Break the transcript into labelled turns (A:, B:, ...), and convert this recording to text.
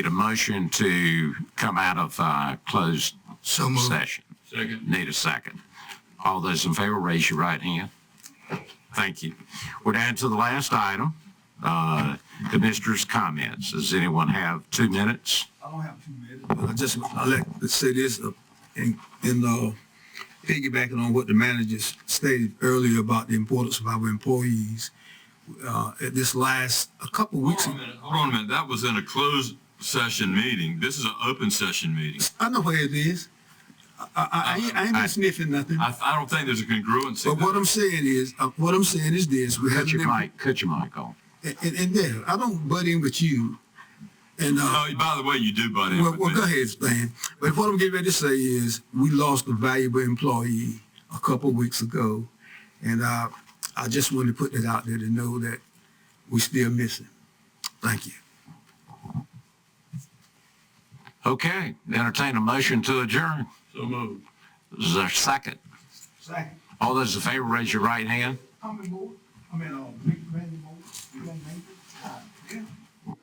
A: Need a motion to come out of uh, closed
B: So moved.
A: session. Second. Need a second. All those in favor, raise your right hand. Thank you. We're down to the last item, uh, Commissioner's comments. Does anyone have two minutes?
C: I don't have two minutes. I just, I like to say this, uh, in, in, uh, piggybacking on what the managers stated earlier about the importance of our employees. Uh, at this last, a couple weeks,
D: Hold on a minute, hold on a minute. That was in a closed session meeting. This is an open session meeting.
C: I know where it is. I, I, I ain't, I ain't been sniffing nothing.
D: I, I don't think there's a congruency.
C: But what
D: there.
C: I'm saying is, uh, what I'm saying is this, we had
A: Cut your
C: an,
A: mic, cut your mic off.
C: and, and and there, I don't butt in with you. And, uh,
D: Oh, by the way, you do butt in
C: well,
D: with
C: well,
D: me.
C: go ahead, Stan. But what I'm getting ready to say is, we lost a valuable employee a couple of weeks ago. And uh, I just wanted to put that out there to know that we still miss him. Thank you.
A: Okay, entertain a motion to adjourn.
D: So moved.
A: Is there a second?
C: Second.
A: All those in favor, raise your right hand.
C: I'm in board. Ah,